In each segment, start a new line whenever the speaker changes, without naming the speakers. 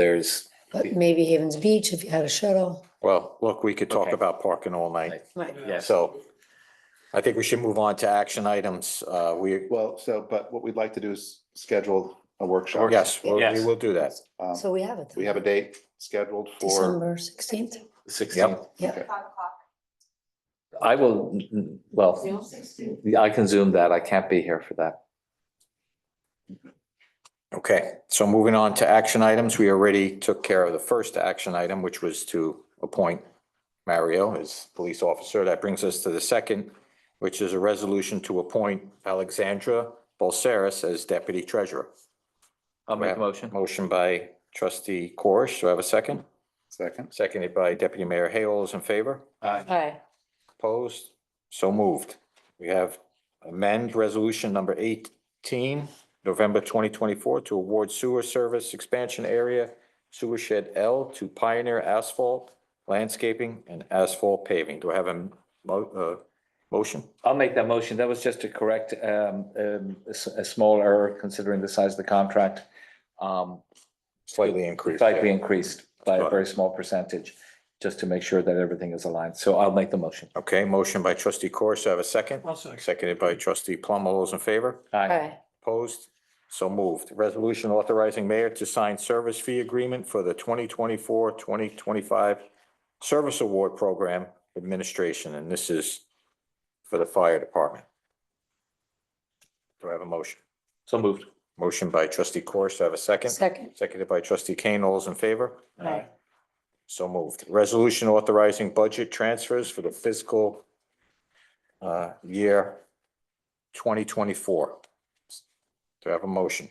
There's,
But maybe Havens Beach, if you had a shuttle.
Well, look, we could talk
Okay.
about parking all night.
Right.
yes,
So I think we should move on to action items. Uh, we,
Well, so, but what we'd like to do is schedule a workshop.
yes, we we
Yes.
will do that.
Um,
So we have it.
We have a date scheduled for,
December sixteenth.
sixteen.
Yeah.
I will, mm, mm, well, I can zoom that. I can't be here for that.
Okay, so moving on to action items, we already took care of the first action item, which was to appoint Mario as police officer. That brings us to the second, which is a resolution to appoint Alexandra Bolseris as deputy treasurer.
I'll make a motion.
Motion by trustee Corish. Do I have a second?
second,
Seconded by deputy mayor Hay. All those in favor?
Hi.
Opposed? So moved. We have amend resolution number eighteen, November twenty twenty-four, to award sewer service expansion area sewer shed L to Pioneer Asphalt Landscaping and Asphalt Paving. Do I have a mo- uh, motion?
I'll make that motion. That was just to correct um, um, a s- a small error considering the size of the contract. Um,
Slightly increased.
Slightly increased by a
Right.
very small percentage, just to make sure that everything is aligned. So I'll make the motion.
Okay, motion by trustee Corish. Do I have a second? Seconded by trustee Plum. All those in favor?
Aye.
Hi.
Opposed? So moved. Resolution authorizing mayor to sign service fee agreement for the 2024-2025 Service Award Program Administration, and this is for the fire department. Do I have a motion?
So moved.
Motion by trustee Corus, do I have a second?
Second.
Seconded by trustee Kane. All those in favor?
Hi.
So moved. Resolution authorizing budget transfers for the fiscal uh, year twenty twenty-four. Do I have a motion?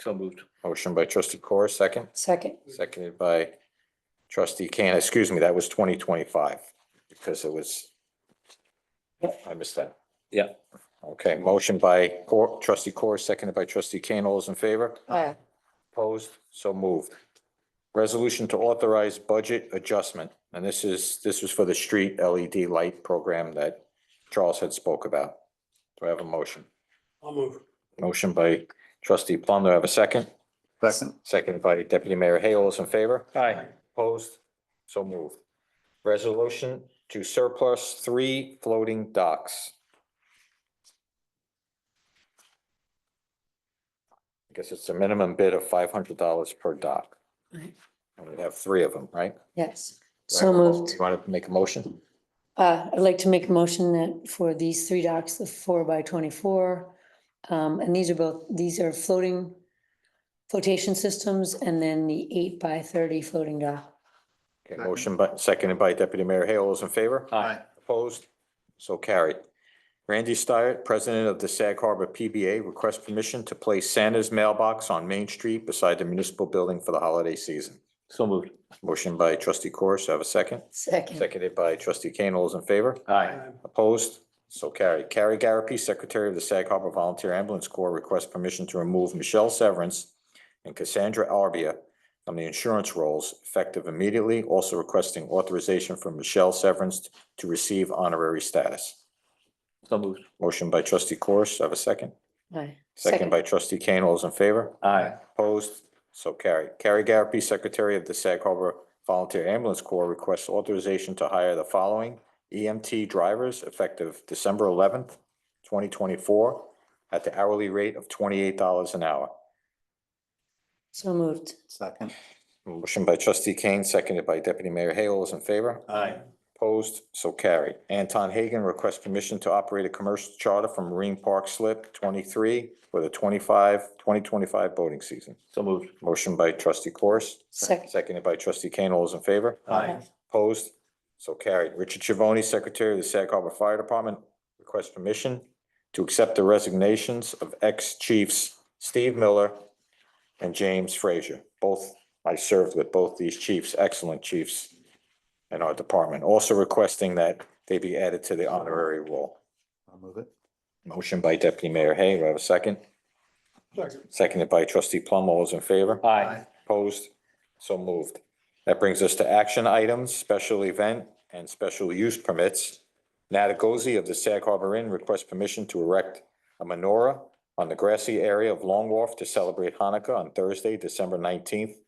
So moved.
Motion by trustee Corr, second,
Mm-hmm.
Second.
seconded by trustee Kane. Excuse me, that was twenty twenty-five because it was. I missed that.
Yeah.
Okay, motion by Cor, trustee Corr, seconded by trustee Kane. All those in favor?
Hi.
Opposed? So moved. Resolution to authorize budget adjustment, and this is, this was for the street LED light program that Charles had spoke about. Do I have a motion?
I'll move.
Motion by trustee Plum, do I have a second?
second,
Seconded by deputy mayor Hay, all those in favor?
Aye.
Opposed? So moved. Resolution to surplus three floating docks. I guess it's a minimum bid of five hundred dollars per dock.
Right.
And we have three of them, right?
Yes. So moved.
You Want to make a motion?
Uh, I'd like to make a motion that for these three docks, the four by twenty-four. Um, and these are both, these are floating flotation systems and then the eight by thirty floating dock.
Okay, motion by, seconded by deputy mayor Hay, all those in favor?
Aye.
Opposed? So carried. Randy Stiart, president of the Sag Harbor PBA, requests permission to place Santa's mailbox on Main Street beside the municipal building for the holiday season.
So moved.
Motion by trustee Corus, have a second.
Second.
Seconded by trustee Kane. All those in favor?
Aye.
Opposed? So carried. Carrie Garapi, secretary of the Sag Harbor Volunteer Ambulance Corps, requests permission to remove Michelle Severance and Cassandra Arbia from the insurance rolls effective immediately, also requesting authorization for Michelle Severance to receive honorary status.
So moved.
Motion by trustee Corus, have a second.
Aye.
Second by trustee Kane. All those in favor?
Aye.
Opposed? So carried. Carrie Garapi, Secretary of the Sag Harbor Volunteer Ambulance Corps, requests authorization to hire the following EMT drivers effective December eleventh, twenty twenty-four, at the hourly rate of twenty-eight dollars an hour.
So moved.
second,
Motion by trustee Kane, seconded by deputy mayor Hay. All those in favor?
Aye.
Opposed? So carried. Anton Hagan requests permission to operate a commercial charter from Marine Park Slip twenty-three for the 25 2025 boating season.
So moved.
Motion by trustee Corus.
Second.
Seconded by trustee Kane. All those in favor?
Aye.
Opposed? So carried. Richard Chivoni, Secretary of the Sag Harbor Fire Department, requests permission to accept the resignations of ex-chiefs Steve Miller and James Frazier. Both, I served with both these chiefs, excellent chiefs in our department. Also requesting that they be added to the honorary roll.
I'll move it.
Motion by Deputy Mayor Hay. Do I have a second?
Second.
Seconded by Trustee Plum. All those in favor?
Aye.
Opposed? So moved. That brings us to action items, special event and special use permits. Natagozi of the Sag Harbor Inn requests permission to erect a menorah on the grassy area of Long Wharf to celebrate Hanukkah on Thursday, December nineteenth,